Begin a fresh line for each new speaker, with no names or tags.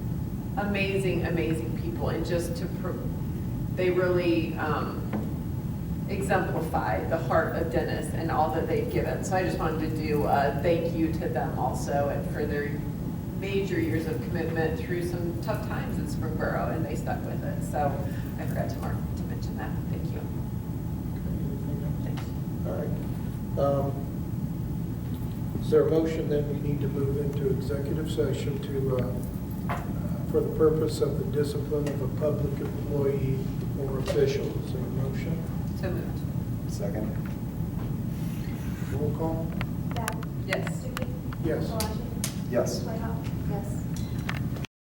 amazing, amazing people and just to, pro- they really um, exemplify the heart of Dennis and all that they've given. So I just wanted to do a thank you to them also and for their major years of commitment through some tough times in Springboro and they stuck with it. So I forgot to mark, to mention that. Thank you. Thanks.
All right. Um, Is there a motion that we need to move into executive session to, uh, uh, for the purpose of the discipline of a public employee or official? Is there a motion?
So moved.
Second?
Roll call?
Bab?
Yes.
Stuckey?
Yes.
Palage?
Yes.
Whitehouse? Yes.